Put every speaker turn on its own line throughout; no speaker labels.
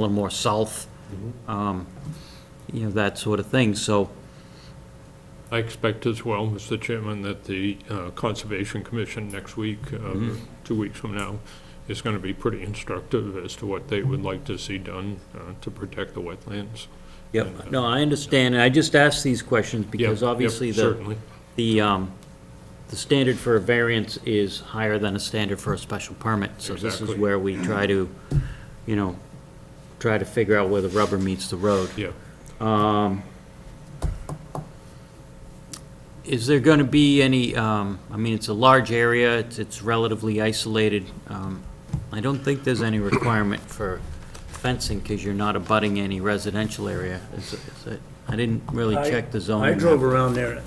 a little more south,
Mm-hmm.
um, you know, that sort of thing, so,
I expect as well, Mr. Chairman, that the uh, Conservation Commission next week, uh,
Mm-hmm.
two weeks from now, is going to be pretty instructive as to what they would like to see done uh, to protect the wetlands.
yep, no, I understand, and I just ask these questions
Yeah,
because
yeah,
obviously the,
Certainly,
the, um, the standard for a variance is higher than a standard for a special permit, so this is
Exactly.
where we try to, you know, try to figure out where the rubber meets the road.
yeah.
Is there going to be any, um, I mean, it's a large area, it's it's relatively isolated. Um, I don't think there's any requirement for fencing because you're not abutting any residential area. Is it- is it- I didn't really
I-
check the zoning. Mm-hmm.
I drove
map.
around there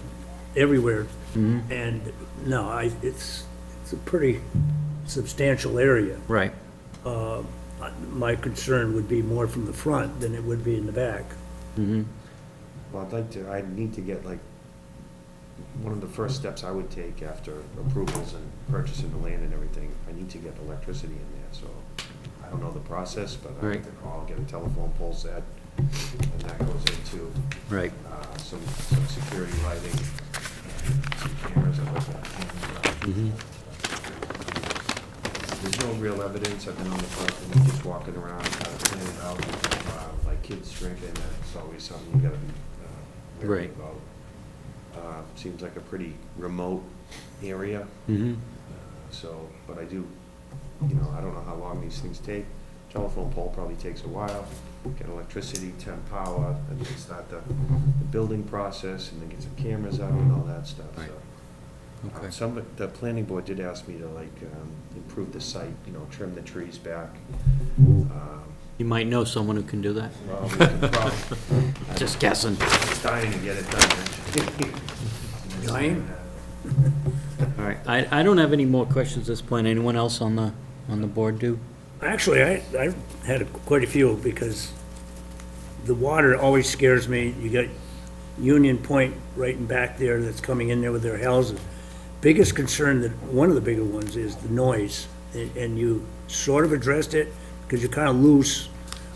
everywhere, and no, I, it's, it's a pretty substantial area.
Right,
Uh, My concern would be more from the front than it would be in the back.
Mm-hmm.
Well, I'd like to, i need to get like, one of the first steps I would take after approvals and purchasing the land and everything, I need to get electricity in there, so I don't know the process, but I have to
Right.
call, get a telephone pole set, and that goes into
right.
uh, some, some security lighting, and some cameras and like that.
Mm-hmm.
There's no real evidence, I've been on the front, and just walking around, kind of planning it out, uh, like kids drinking, that's always something you gotta be uh, wary
Right.
about. Uh, Seems like a pretty remote area, Uh,
Mhm.
so, but I do, you know, I don't know how long these things take. Telephone pole probably takes a while, get electricity, temp power, and then start the, the building process, and then get some cameras out and all that stuff,
Right.
so.
Okay.
Some, the planning board did ask me to like, um, improve the site, you know, trim the trees back. Um,
You might know someone who can do that.
Well, we could probably,
Just guessing.
dying to get it done.
Dying?
All right, I, I don't have any more questions at this point. Anyone else on the, on the board do?
Actually, I, I had quite a few, because the water always scares me. You got Union Point right in back there that's coming in there with their houses. Biggest concern, that, one of the bigger ones, is the noise, and and you sort of addressed it, because you're kind of loose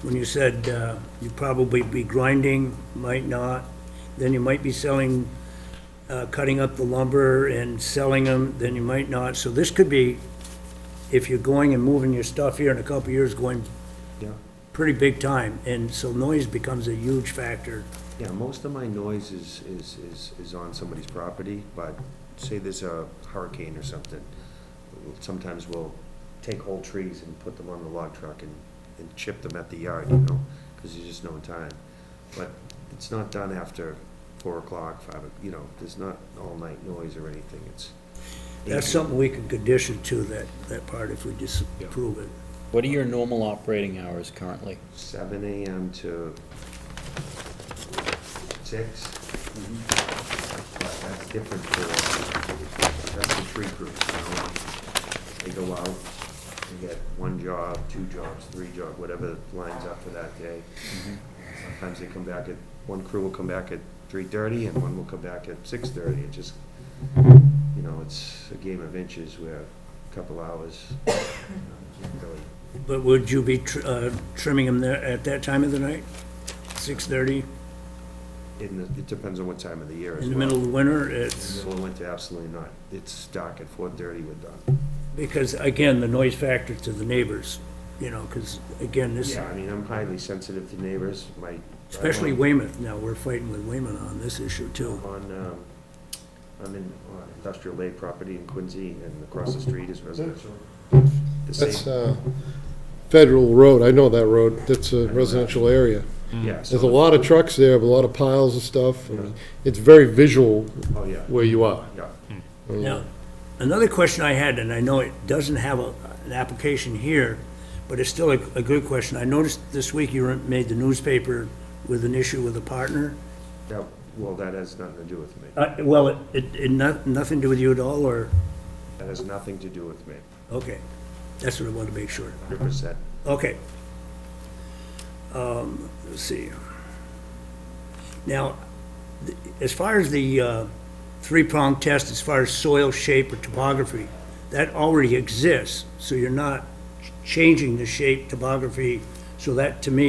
when you said uh, you'd probably be grinding, might not, then you might be selling, uh, cutting up the lumber and selling them, then you might not. So this could be, if you're going and moving your stuff here in a couple of years, going
Yeah,
pretty big time, and so noise becomes a huge factor.
yeah, most of my noise is, is, is, is on somebody's property, but say there's a hurricane or something, sometimes we'll take whole trees and put them on the log truck and, and chip them at the yard, you know, because there's just no time. But it's not done after four o'clock, five, o- you know, there's not all-night noise or anything, it's.
That's something we could condition to, that, that part, if we disapprove it.
What are your normal operating hours currently?
Seven AM to six. But That's different for, that's the tree crew, you know? They go out, they get one job, two jobs, three jobs, whatever lines up for that day. Sometimes they come back at, one crew will come back at three-thirty and one will come back at six-thirty. It just, you know, it's a game of inches where a couple hours, you know, you can't really
But would you be tr- uh, trimming them there at that time of the night? 6:30,
In the, it depends on what time of the year as
in the
well.
middle of the winter?
In the
It's,
middle of winter, absolutely not. It's dark at four thirty, we're done.
because, again, the noise factor to the neighbors, you know, because, again, this,
Yeah, I mean, I'm highly sensitive to neighbors, my. I'm
especially
on-
Weymouth, now, we're fighting with Weymouth on this issue, too.
On, um, I'm in on industrial lake property in Quincy, and across the street is residential. The
That's
same,
uh, Federal Road, I know that road, that's a residential area.
yeah. so
There's a
the-
lot of trucks there, a lot of piles of stuff, and it's very visual
Oh, yeah,
where you are.
yeah.
Now, another question I had, and I know it doesn't have a, an application here, but it's still a, a good question. I noticed this week you were- made the newspaper with an issue with a partner.
That, well, that has nothing to do with me.
Uh, well, it, it, it not, nothing to do with you at all, or,
That has nothing to do with me,
okay, that's what I wanted to make sure.
hundred percent.
Okay. Um, let's see. Now, th- as far as the, uh, three-prong test, as far as soil shape or topography, that already exists, so you're not ch- changing the shape, topography So that, to me,